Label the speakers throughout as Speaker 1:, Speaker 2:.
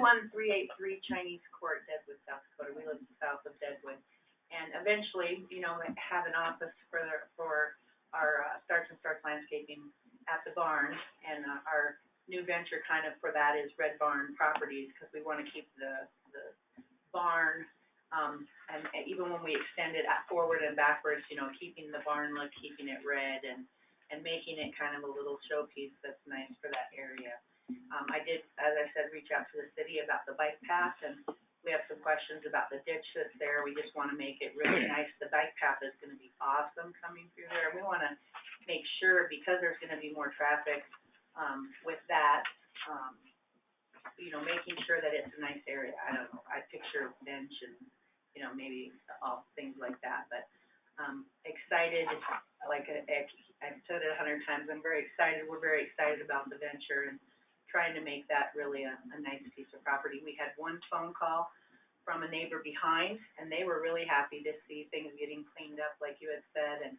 Speaker 1: One three eight three Chinese Court, Deadwood, South Dakota, we live south of Deadwood. And eventually, you know, have an office for, the- for our, uh, Starts and Starts Landscaping at the barn. And, uh, our new venture kind of for that is Red Barn Properties, because we want to keep the, the barn, um, and and even when we extend it out forward and backwards, you know, keeping the barn look, keeping it red and, and making it kind of a little showpiece that's nice for that area. Um, I did, as I said, reach out to the city about the bike path, and we have some questions about the ditch that's there. We just wanna make it really nice. The bike path is gonna be awesome coming through there. We wanna make sure, because there's gonna be more traffic, um, with that, um, you know, making sure that it's a nice area. I don't know, I picture bench and, you know, maybe all things like that, but, um, excited, like, I, I- I've said it a hundred times, I'm very excited, we're very excited about the venture and trying to make that really a, a nice piece of property. We had one phone call from a neighbor behind, and they were really happy to see things getting cleaned up, like you had said, and,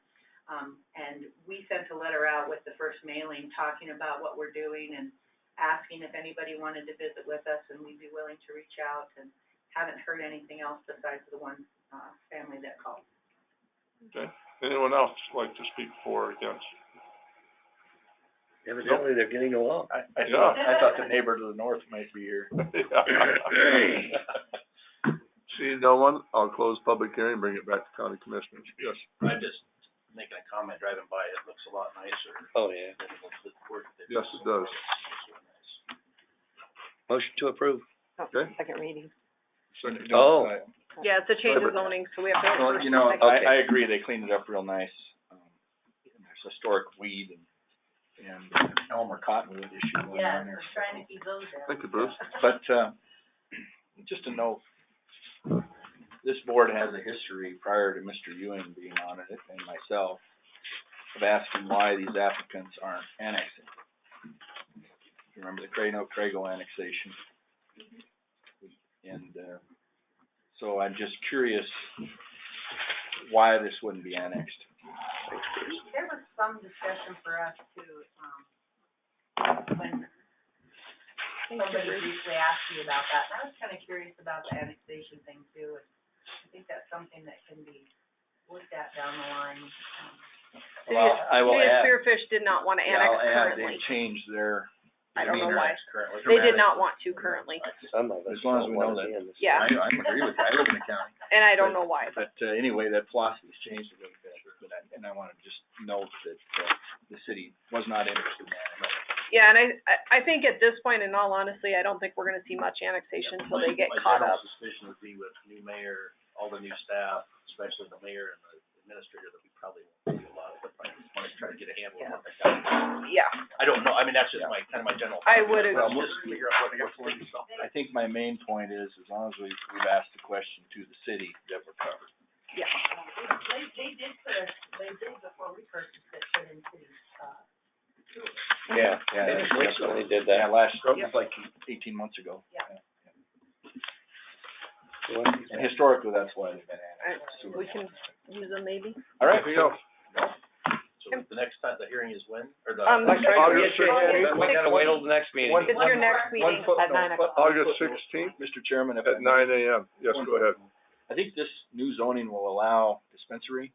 Speaker 1: um, and we sent a letter out with the first mailing, talking about what we're doing and asking if anybody wanted to visit with us, and we'd be willing to reach out, and haven't heard anything else besides the one, uh, family that called.
Speaker 2: Anyone else like to speak for or against?
Speaker 3: Evidently, they're getting along.
Speaker 4: I, I
Speaker 2: Yeah.
Speaker 4: thought, I thought the neighbor to the north might be here.
Speaker 2: Seeing no one, I'll close public hearing, bring it back to county commissioners. Yes.
Speaker 4: I'm just making a comment driving by, it looks a lot nicer
Speaker 3: Oh, yeah.
Speaker 4: than it looks at work.
Speaker 2: Yes, it does.
Speaker 3: Motion to approve.
Speaker 2: Okay.
Speaker 5: Oh, second reading.
Speaker 2: Second.
Speaker 3: Oh.
Speaker 5: Yeah, it's a change of zoning, so we have to. have
Speaker 4: Well,
Speaker 5: first
Speaker 4: you
Speaker 5: and
Speaker 4: know,
Speaker 5: second.
Speaker 3: Okay.
Speaker 4: I, I agree, they cleaned it up real nice. Um, There's historic weed and, and Elmer Cottonwood issue going on there.
Speaker 1: trying to keep those down.
Speaker 2: Thank you, Bruce.
Speaker 4: But, uh, just to know, this board has a history prior to Mr. Ewing being on it and myself of asking why these applicants aren't annexing. If you Remember the Crano Crago annexation? And, uh, so I'm just curious why this wouldn't be annexed.
Speaker 1: There was some discussion for us too, um, when somebody briefly asked me about that, and I was kinda curious about the annexation thing too, and I think that's something that can be looked at down the line, um.
Speaker 5: City
Speaker 4: Well,
Speaker 5: of-
Speaker 4: I will
Speaker 5: City of
Speaker 4: add,
Speaker 5: Spearfish did not want to
Speaker 4: yeah,
Speaker 5: annex
Speaker 4: I'll add,
Speaker 5: currently.
Speaker 4: they've changed their
Speaker 5: I don't know
Speaker 4: demeanor
Speaker 5: why.
Speaker 4: currently.
Speaker 5: They did not want to currently,
Speaker 3: Some of us
Speaker 4: As long
Speaker 3: don't
Speaker 4: as we
Speaker 3: want
Speaker 4: know
Speaker 3: to be in this.
Speaker 5: yeah,
Speaker 4: I, I agree with that, I live in the county.
Speaker 5: and I don't know why, but
Speaker 4: But, uh, anyway, that philosophy's changed a little bit, but I, and I wanna just note that, uh, the city was not interested in that.
Speaker 5: Yeah, and I, I, I think at this point, in all honesty, I don't think we're gonna see much annexation until they get caught up.
Speaker 4: suspicion would be with new mayor, all the new staff, especially the mayor and the administrator, that we probably won't see a lot of, I just wanna try to get a handle on what they got.
Speaker 5: Yeah,
Speaker 4: I don't know, I mean, that's just my, kinda my general.
Speaker 5: I would agree.
Speaker 4: Well, we'll figure out what they got for themselves. I think my main point is, as long as we, we've asked the question to the city, that we're covered.
Speaker 5: yeah.
Speaker 1: They, they did put a, they did before we purchased it, put in uh, city, uh,
Speaker 3: Yeah,
Speaker 4: Yeah,
Speaker 3: they
Speaker 4: that's-
Speaker 3: recently did that.
Speaker 4: Yeah, last,
Speaker 2: Yep.
Speaker 4: it's like eighteen months ago.
Speaker 1: Yeah.
Speaker 4: And historically, that's why they've been
Speaker 5: I,
Speaker 4: annexed. sewer.
Speaker 5: we can use them maybe.
Speaker 4: All right,
Speaker 2: Anything else?
Speaker 5: So
Speaker 4: the next time, the hearing is when, or the?
Speaker 5: Um,
Speaker 3: Next
Speaker 5: Sorry,
Speaker 2: August
Speaker 5: we had
Speaker 2: sixteenth.
Speaker 5: to-
Speaker 3: We gotta wait till the next meeting.
Speaker 2: One-
Speaker 5: It's your next
Speaker 2: one
Speaker 5: meeting
Speaker 2: footnote.
Speaker 5: at nine o'clock.
Speaker 2: August sixteenth
Speaker 4: Mr. Chairman, if
Speaker 2: at
Speaker 4: I may-
Speaker 2: nine AM. Yes, go ahead.
Speaker 4: I think this new zoning will allow dispensary.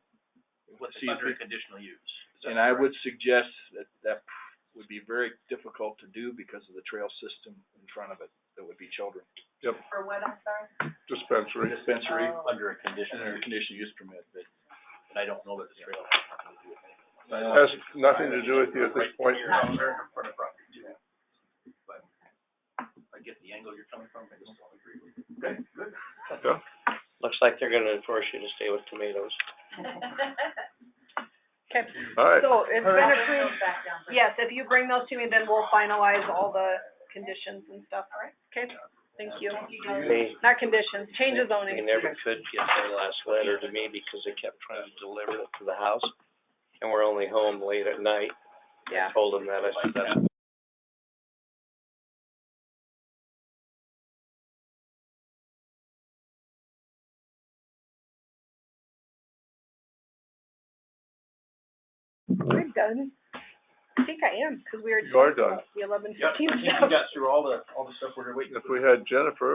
Speaker 4: With under conditional use. And I would suggest that that would be very difficult to do because of the trail system in front of it, that would be children.
Speaker 1: for what, I'm sorry?
Speaker 2: Dispensary.
Speaker 4: Dispensary.
Speaker 1: Oh.
Speaker 4: Under a condition. Under a conditional use permit, but. And I don't know that the trail. uh,
Speaker 2: Has nothing to do with you at this point.
Speaker 4: I get the angle you're coming from, I just don't agree with it.
Speaker 2: Yeah.
Speaker 3: Looks like they're gonna enforce you to stay with tomatoes.
Speaker 5: Okay,
Speaker 2: All right.
Speaker 5: so it's been approved.
Speaker 1: Back down.
Speaker 5: Yes, if you bring those to me, then we'll finalize all the conditions and stuff, all right? Okay, thank you.
Speaker 3: They,
Speaker 5: Not conditions, change of
Speaker 3: they
Speaker 5: zoning.
Speaker 3: never could get their last letter to me because they kept trying to deliver it to the house. And we're only home late at night.
Speaker 5: Yeah.
Speaker 3: I told them that. I said, that's
Speaker 5: I'm done. I think I am, cause we were
Speaker 2: You are
Speaker 5: talking about the eleven fifteen stuff.
Speaker 4: got through all the, all the stuff we're waiting
Speaker 2: If we had Jennifer,